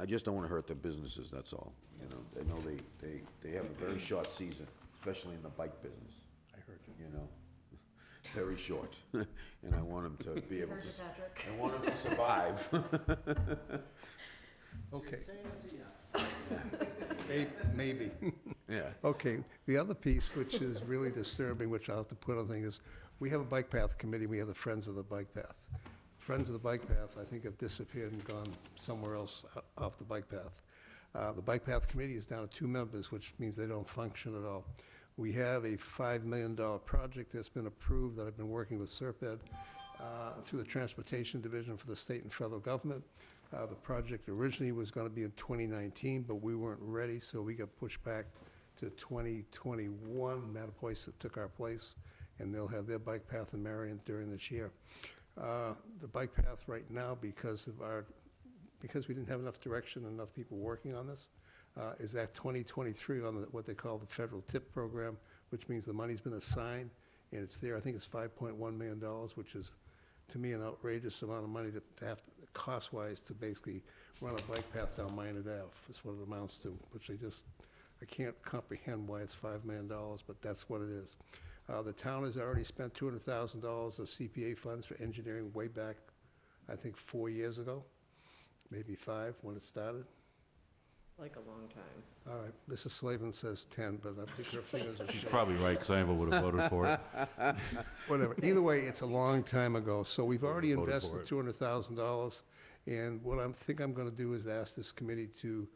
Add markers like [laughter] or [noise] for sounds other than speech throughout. I just don't want to hurt the businesses, that's all. You know, I know they, they, they have a very short season, especially in the bike business. I heard you. You know, [laughs] very short, [laughs] and I want them to be able to, s- Patrick. I want them to survive. [laughs] Okay, yes. [laughs] may- maybe. Yeah, Okay, the other piece, which is really disturbing, which I'll have to put on thing, is we have a bike path committee, we have the Friends of the Bike Path. Friends of the Bike Path, I think, have disappeared and gone somewhere else o- off the bike path. Uh, The Bike Path Committee is down to two members, which means they don't function at all. We have a $5 million project that's been approved, that I've been working with Serped uh, through the Transportation Division for the state and federal government. Uh, The project originally was going to be in 2019, but we weren't ready, so we got pushed back to 2021. Mattapoisett took our place, and they'll have their bike path in Marion during this year. Uh, The bike path right now, because of our, because we didn't have enough direction, and enough people working on this, uh, is at 2023 on the- what they call the federal tip program, which means the money's been assigned, and it's there. I think it's $5.1 million, which is, to me, an outrageous amount of money to to have, to- cost-wise, to basically run a bike path down Minot Ave, is what it amounts to, which I just, I can't comprehend why it's $5 million, but that's what it is. Uh, The town has already spent $200,000 of CPA funds for engineering way back, I think, four years ago, maybe five, when it started. Like a long time. All right, Mrs. Slavin says 10, but I think her fingers are She's short. probably right, because I never would have voted for it. Whatever, either way, it's a long time ago, so we've already Voted for invested it. two hundred thousand dollars. And what I'm, think I'm gonna do is ask this committee to,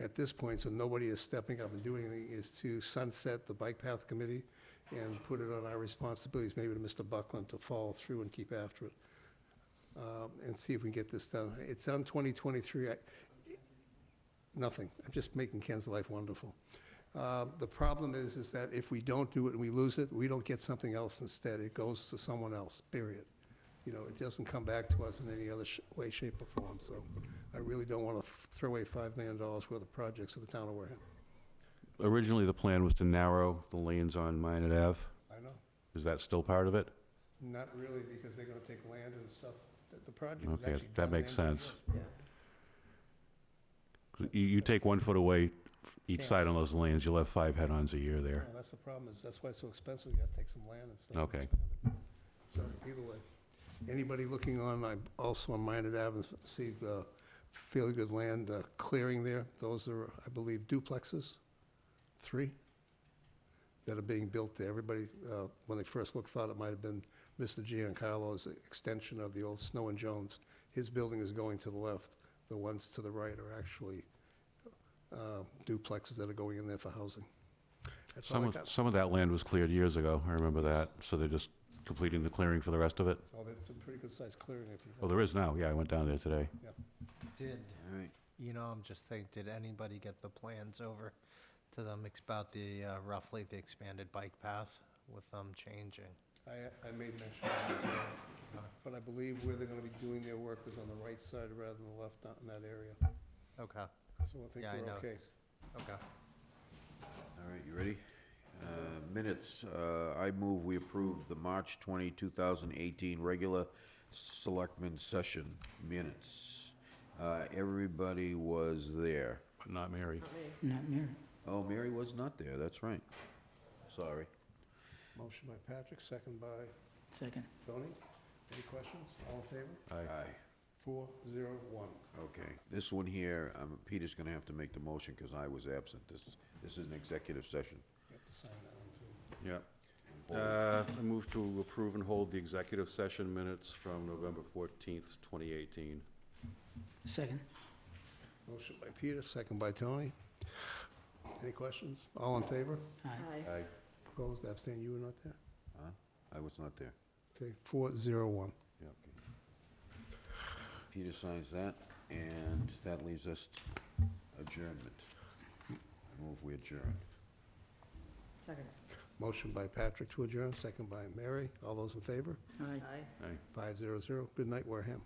at this point, so nobody is stepping up and doing anything, is to sunset the Bike Path Committee and put it on our responsibilities, maybe to Mr. Buckland, to follow through and keep after it. Um, and see if we can get this done. It's on twenty twenty-three. Nothing. I'm just making Ken's life wonderful. Uh, The problem is, is that if we don't do it and we lose it, we don't get something else instead. It goes to someone else, period. You know, it doesn't come back to us in any other sh- way, shape, or form, so I really don't want to throw away $5 million worth of projects of the town of Wareham. [laughs] Originally, the plan was to narrow the lanes on Minot Ave. I know, Is that still part of it? not really, because they're going to take land and stuff. The- The project is actually Okay, that done and makes sense. engineered. Yeah. 'Cause You, you take one foot away f- each Yeah. side on those lanes, you'll have five head-ons a year there. No, That's the problem, is that's why it's so expensive, you have to take some land and stuff. and Okay. expand it. So either way, anybody looking on, I also on Minot Ave, and see the fairly good land uh, clearing there. Those are, I believe, duplexes, three, that are being built there. Everybody, uh, when they first looked, thought it might have been Mr. Giancarlo's extension of the old Snow and Jones. His building is going to the left. The ones to the right are actually uh, duplexes that are going in there for housing. That's all I Some got. of, some of that land was cleared years ago, I remember that, so they're just completing the clearing for the rest of it? Oh, that's a pretty good sized clearing if you. Oh, there is now, yeah, I went down there today. Did, all right. you know, I'm just thinking, did anybody get the plans over to them ex- about the, uh, roughly the expanded bike path with them changing? I, I made mention of that, uh, but I believe where they're gonna be doing their work was on the right side rather than the left out in that area. Okay, So I think yeah, I we're know. okay. it's- Okay. All right, you ready? Uh, Minutes, Uh, I move we approve the March 20, 2018 regular selectmen session minutes. Uh, Everybody was there. But not Mary. Not Mary. Oh, Mary was not there, that's right. Sorry. Motion by Patrick, second by Second. Tony. Any questions? All in favor? Aye. Aye, Four, zero, one. okay. This one here, um, Peter's gonna have to make the motion because I was absent. This, this is an executive session. You have to sign that one too. Yeah. Uh, I move to approve and hold the executive session minutes from November 14th, 2018. Second. Motion by Peter, second by Tony. Any questions? All in favor? Aye. Aye. Opposed, abstained, you were not there? Huh? I was not there. Okay, four, zero, one. Peter signs that, and that leaves us t- adjournment. I Move we adjourn. Second. Motion by Patrick to adjourn, second by Mary. All those in favor? Aye. Aye. Five, zero, zero. Good night, Wareham.